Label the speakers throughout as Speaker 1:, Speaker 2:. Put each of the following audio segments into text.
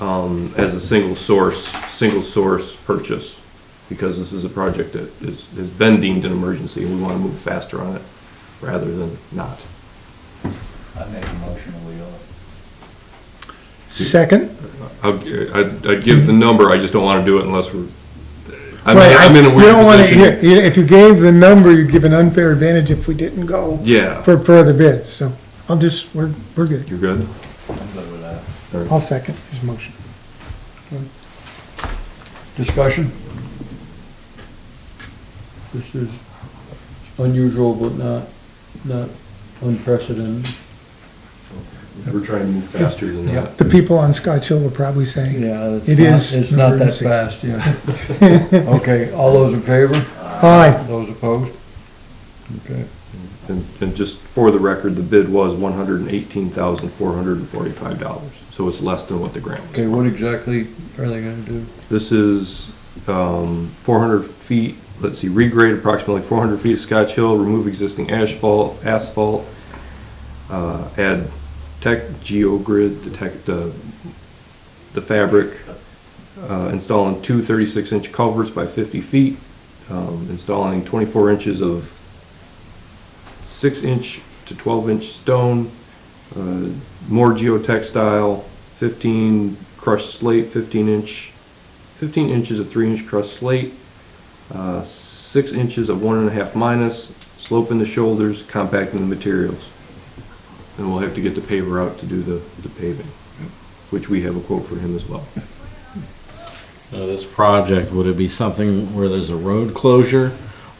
Speaker 1: um, as a single source, single source purchase, because this is a project that is, has been deemed an emergency, and we want to move faster on it rather than not.
Speaker 2: I make a motion, that we all.
Speaker 3: Second?
Speaker 1: I'll, I'd, I'd give the number, I just don't want to do it unless we're, I'm,
Speaker 3: Right, I-
Speaker 1: I'm in a
Speaker 3: you don't wanna-
Speaker 1: weird position.
Speaker 3: you- you- If you gave the number, you'd give an unfair advantage if we didn't go
Speaker 1: Yeah,
Speaker 3: for further bids, so I'll just, we're, we're good.
Speaker 1: you're good?
Speaker 2: I'm good with that.
Speaker 1: All right.
Speaker 3: I'll second his motion.
Speaker 4: Discussion? This is unusual, but not, not unprecedented.
Speaker 1: We're trying to move faster than
Speaker 4: Yeah.
Speaker 1: that.
Speaker 3: The people on Scotch Hill will probably say,
Speaker 4: Yeah, it's
Speaker 3: It
Speaker 4: not,
Speaker 3: is
Speaker 4: it's not that
Speaker 3: emergency.
Speaker 4: fast, yeah. Okay, all those in favor?
Speaker 3: aye,
Speaker 4: Those opposed? Okay.
Speaker 1: And, and just for the record, the bid was one hundred and eighteen thousand, four hundred and forty-five dollars, so it's less than what the grant
Speaker 4: Okay,
Speaker 1: was.
Speaker 4: what exactly are they gonna do?
Speaker 1: This is, um, four hundred feet, let's see, regrade approximately four hundred feet of Scotch Hill, remove existing asphalt, asphalt, uh, add tech, geogrid, the tech, the, the fabric, uh, installing two 36 inch culverts by fifty feet, um, installing twenty-four inches of six inch to twelve inch stone, uh, more geotextile, fifteen crushed slate, fifteen inch, fifteen inches of three inch crushed slate, uh, six inches of one and a half minus, slope in the shoulders, compacting the materials. And we'll have to get the paver out to do the, the paving, which we have a quote for him as well.
Speaker 5: Now, Uh, this project, would it be something where there's a road closure,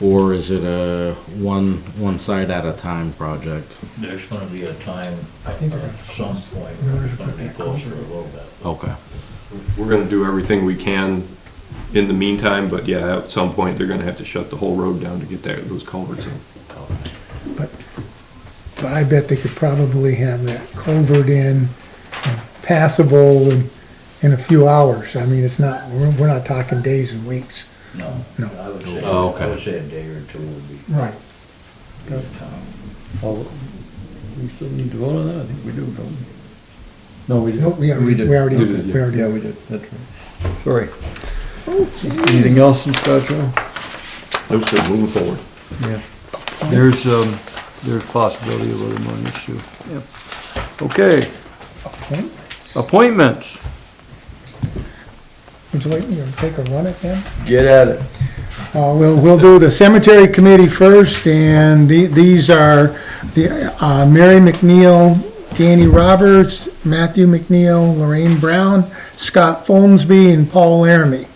Speaker 5: or is it a one, one site at a time project?
Speaker 2: There's gonna be a time,
Speaker 3: I
Speaker 2: at
Speaker 3: think they're-
Speaker 2: some point,
Speaker 3: in
Speaker 2: where
Speaker 3: order
Speaker 2: it's
Speaker 3: to
Speaker 2: gonna
Speaker 3: put
Speaker 2: be
Speaker 3: that
Speaker 2: closed for a
Speaker 3: culvert
Speaker 2: little bit.
Speaker 5: Okay.
Speaker 1: We're gonna do everything we can in the meantime, but yeah, at some point, they're gonna have to shut the whole road down to get that, those culverts in.
Speaker 3: but I bet they could probably have that culvert in and passable in, in a few hours. I mean, it's not, we're, we're not talking days and weeks.
Speaker 2: No.
Speaker 3: No.
Speaker 2: I would say,
Speaker 5: Oh, okay.
Speaker 2: I would say a day or two would be,
Speaker 3: Right.
Speaker 2: be the time.
Speaker 4: All, we still need to vote on that? I think we do, don't we? No, we didn't.
Speaker 3: Nope, we already,
Speaker 4: did.
Speaker 3: we already,
Speaker 1: We did,
Speaker 3: we already.
Speaker 4: Yeah, we did, that's right. Sorry. Anything else in Scotch Hill?
Speaker 1: No, sir, moving forward.
Speaker 4: Yeah. There's, um, there's possibility of other monies too. Yep. Okay, appointments.
Speaker 3: Would you like me to take a run at them?
Speaker 4: Get at it.
Speaker 3: Uh, we'll, we'll do the cemetery committee first, and the- these are the, uh, Mary McNeil, Danny Roberts, Matthew McNeil, Lorraine Brown, Scott Folmsby, and Paul Laramie.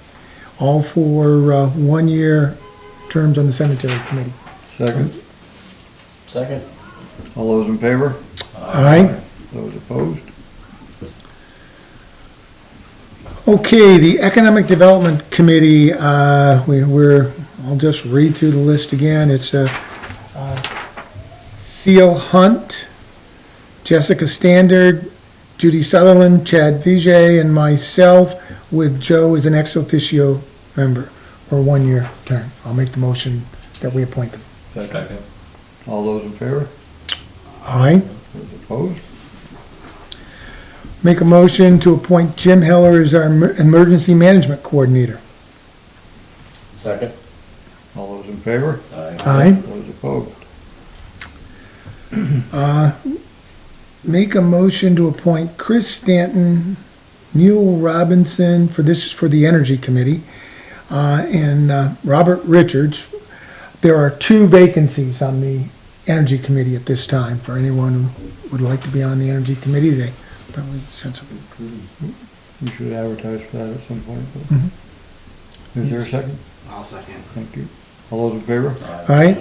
Speaker 3: All for, uh, one-year terms on the cemetery committee.
Speaker 4: Second,
Speaker 2: Second.
Speaker 4: all those in favor?
Speaker 3: All right?
Speaker 4: Those opposed?
Speaker 3: Okay, the Economic Development Committee, uh, we- we're, I'll just read through the list again. It's uh, uh, Seal Hunt, Jessica Standard, Judy Sutherland, Chad Vijay, and myself, with Joe as an ex officio member for a one-year term. I'll make the motion that we appoint them.
Speaker 2: Second.
Speaker 4: All those in favor?
Speaker 3: Aye.
Speaker 4: Those opposed?
Speaker 3: Make a motion to appoint Jim Heller as our emer- Emergency Management Coordinator.
Speaker 2: Second.
Speaker 4: All those in favor?
Speaker 2: Aye.
Speaker 3: Aye.
Speaker 4: Those opposed?
Speaker 3: Uh, Make a motion to appoint Chris Stanton, Neil Robinson, for this is for the Energy Committee, uh, and uh, Robert Richards. There are two vacancies on the Energy Committee at this time. For anyone who would like to be on the Energy Committee, they probably sent some.
Speaker 4: We should advertise for that at some point. but- Is there a second?
Speaker 6: I'll second.
Speaker 4: Thank you. All those in favor?
Speaker 3: All right.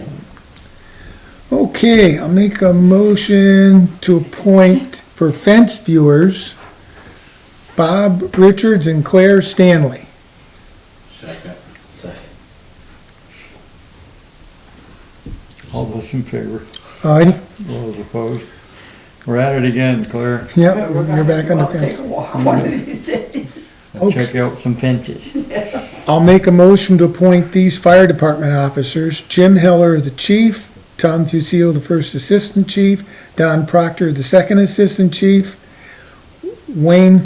Speaker 3: Okay, I'll make a motion to appoint for fence viewers, Bob Richards and Claire Stanley.
Speaker 2: Second. Second.
Speaker 4: All those in favor?
Speaker 3: All right,
Speaker 4: All those opposed? We're at it again, Claire.
Speaker 3: yep, you're back on the fence. Mm-hmm.
Speaker 7: Take a walk one of these days.
Speaker 4: Check out some fences.
Speaker 3: I'll make a motion to appoint these fire department officers, Jim Heller, the chief, Tom Fusil, the first assistant chief, Don Proctor, the second assistant chief, Wayne